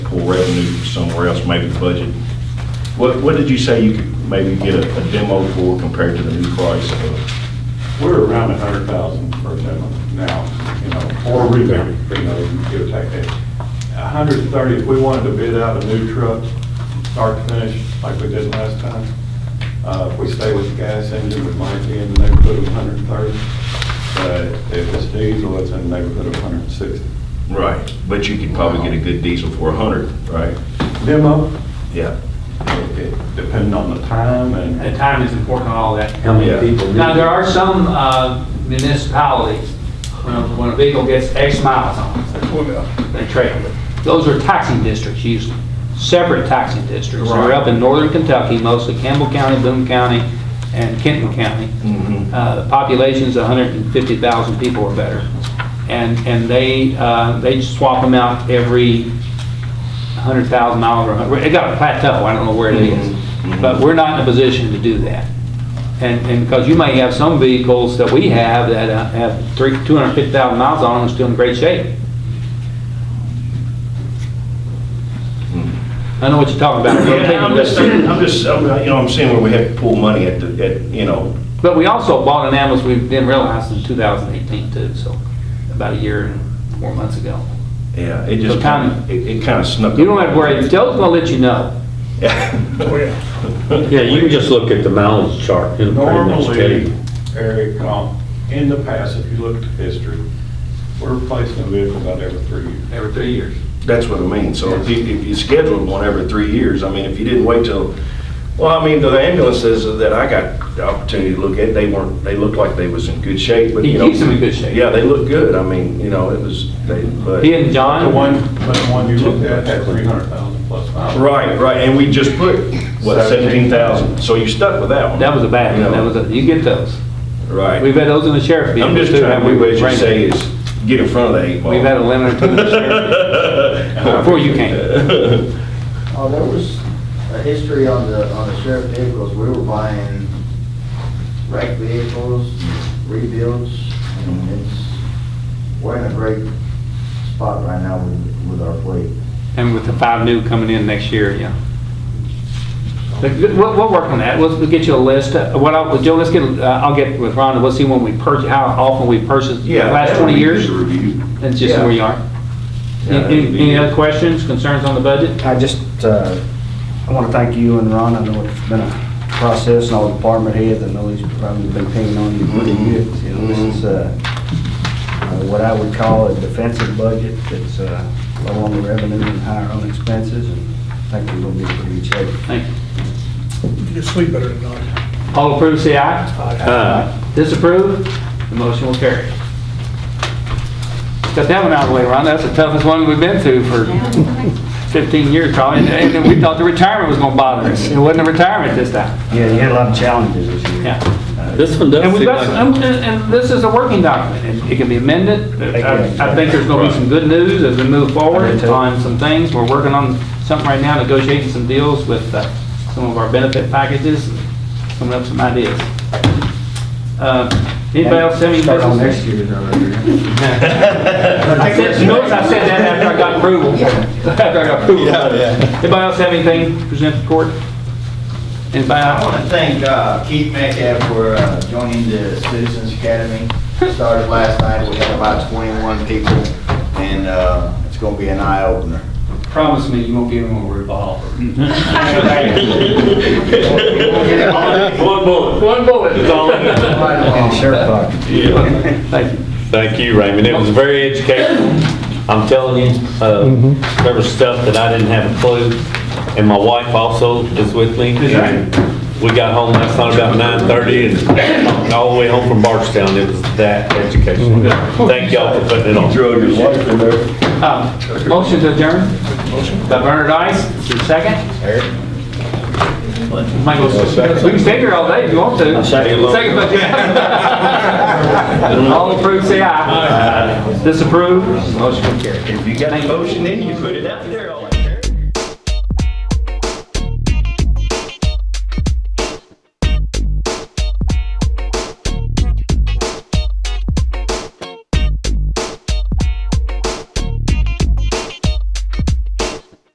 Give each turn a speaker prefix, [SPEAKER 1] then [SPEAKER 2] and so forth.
[SPEAKER 1] available revenue somewhere else, maybe the budget. What, what did you say you could maybe get a a demo for compared to the new price of?
[SPEAKER 2] We're around a hundred thousand for a demo now, you know, or rebate, you know, give or take that. A hundred and thirty, if we wanted to bid out a new truck, start to finish, like we did last time, uh, if we stay with the gas engine, we might be in the neighborhood of a hundred and thirty. But if it's diesel, it's in the neighborhood of a hundred and sixty.
[SPEAKER 1] Right. But you could probably get a good diesel for a hundred, right?
[SPEAKER 2] Demo,
[SPEAKER 1] Yeah.
[SPEAKER 2] it- it- depending on the time and
[SPEAKER 3] And time is important on all that.
[SPEAKER 4] How many
[SPEAKER 1] Yeah.
[SPEAKER 4] people?
[SPEAKER 3] Now, there are some uh, municipalities, when a, when a vehicle gets X miles on it, they trade it. Those are taxing districts usually, separate taxing districts. They're up in northern Kentucky, mostly Campbell County, Boone County, and Kenton County. Uh, the Population's 150,000 people or better. And, and they, uh, they swap them out every 100,000 miles or, 100 it got a plateau, I don't know where it is. But we're not in a position to do that. And, and because you may have some vehicles that we have that uh, have three, 250,000 miles on them, and still in great shape. I know what you're talking about. We're
[SPEAKER 1] Yeah, I'm
[SPEAKER 3] taking
[SPEAKER 1] just,
[SPEAKER 3] risks.
[SPEAKER 1] I'm just, I'm, you know, I'm seeing where we have to pull money at the, at, you know,
[SPEAKER 3] But we also bought an ambulance we didn't realize in 2018 too, so about a year and four months ago.
[SPEAKER 1] yeah, it just
[SPEAKER 3] So time-
[SPEAKER 1] kind of, it, it kind of snuck.
[SPEAKER 3] You don't have to worry, Joe's gonna let you know.
[SPEAKER 4] Yeah, you can just look at the mileage chart. It'll pretty much tell
[SPEAKER 2] Normally,
[SPEAKER 4] you.
[SPEAKER 2] Eric, um, in the past, if you look at history, we're replacing a vehicle about every three years.
[SPEAKER 3] Every three years.
[SPEAKER 1] That's what I mean. So if you, if you scheduled one every three years, I mean, if you didn't wait till, well, I mean, the ambulances that I got the opportunity to look at, they weren't, they looked like they was in good shape, but
[SPEAKER 3] He
[SPEAKER 1] you know.
[SPEAKER 3] keeps them in good shape.
[SPEAKER 1] Yeah, they look good. I mean, you know, it was, they, but.
[SPEAKER 3] He and
[SPEAKER 2] The
[SPEAKER 3] John,
[SPEAKER 2] one, but the one you looked at had three hundred thousand plus miles.
[SPEAKER 1] Right, right. And we just put, what, seventeen thousand? So you stuck with that one.
[SPEAKER 3] that was a bad
[SPEAKER 1] You know,
[SPEAKER 3] one, that was, a- you get those.
[SPEAKER 1] Right.
[SPEAKER 3] We've had those in the sheriff's vehicle.
[SPEAKER 1] I'm just
[SPEAKER 3] too,
[SPEAKER 1] trying,
[SPEAKER 3] haven't
[SPEAKER 1] we,
[SPEAKER 3] we?
[SPEAKER 1] what you say is get in front of the eight ball.
[SPEAKER 3] We've had a limit or two in the sheriff's. Before you came.
[SPEAKER 5] Oh, there was a history on the, on the sheriff vehicles, we were buying wrecked vehicles, rebuilds, and it's, we're in a great spot right now with, with our fleet.
[SPEAKER 3] And with the five new coming in next year, yeah. But good- We'll, we'll work on that, we'll, we'll get you a list, Uh, what I'll, Joe, let's get, uh, I'll get with Rhonda, we'll see when we purchase, how often we purchased, the
[SPEAKER 1] Yeah.
[SPEAKER 3] last
[SPEAKER 1] that
[SPEAKER 3] twenty
[SPEAKER 1] would be
[SPEAKER 3] years,
[SPEAKER 1] good to Review.
[SPEAKER 3] and just see
[SPEAKER 1] Yeah.
[SPEAKER 3] where you are.
[SPEAKER 1] Yeah, that'd
[SPEAKER 3] Any,
[SPEAKER 1] be
[SPEAKER 3] any
[SPEAKER 1] good.
[SPEAKER 3] other questions, concerns on the budget?
[SPEAKER 5] I just, uh, I want to thank you and Ron, I know it's been a process, and all the department heads, I know he's probably been paying on you pretty good. You know, this is, uh, uh, what I would call a defensive budget, that's, uh, low on the revenue and higher on expenses, and I think we're gonna be pretty good shape.
[SPEAKER 3] Thank you.
[SPEAKER 6] You can sleep better at night.
[SPEAKER 3] All approve, say aye.
[SPEAKER 4] Uh,
[SPEAKER 3] Disapprove, the motion will carry. Got that one out of the way, Ron, that's the toughest one we've been through for fifteen years probably, and- and then we thought the retirement was gonna bother us, it wasn't a retirement this time,
[SPEAKER 5] Yeah, you had a lot of challenges this year.
[SPEAKER 3] yeah.
[SPEAKER 4] This one does
[SPEAKER 3] And we've
[SPEAKER 4] seem
[SPEAKER 3] got,
[SPEAKER 4] like,
[SPEAKER 3] some- and, and this is a working document, and it can be amended. I I think there's gonna be some good news as we move forward on some things. We're working on something right now, negotiating some deals with uh, some of our benefit packages, coming up with some ideas. Uh, Anybody else have any
[SPEAKER 5] Start on next
[SPEAKER 3] business?
[SPEAKER 5] year's already.
[SPEAKER 3] I said, notice I said that after I got approval, after I got approval. Anybody else have anything to present to court? Anybody?
[SPEAKER 7] I want to thank uh, Keith Metcalf for uh, joining the Citizens Academy. Started last night, we had about 21 people, and uh, it's going to be an eye-opener.
[SPEAKER 3] Promise me you won't give him a revolver.
[SPEAKER 1] One bullet.
[SPEAKER 3] One bullet is all.
[SPEAKER 5] In shirt pocket.
[SPEAKER 3] Thank you.
[SPEAKER 4] thank you, Raymond. It was very educational. I'm telling you, uh, there was stuff that I didn't have a clue. And my wife also is with me. And We got home last night about 9:30 and all the way home from Barstown. It was that educational. Thank y'all for putting it on.
[SPEAKER 1] Throw your wife in there.
[SPEAKER 3] Um, Motion to adjourn? By Bernard Ice, your second? Michael, we can stay here all day if you want to.
[SPEAKER 4] second.
[SPEAKER 3] Second, but yeah. All approved, say aye. Disapprove? Motion carried.
[SPEAKER 1] If you got a motion in, you put it out there. all-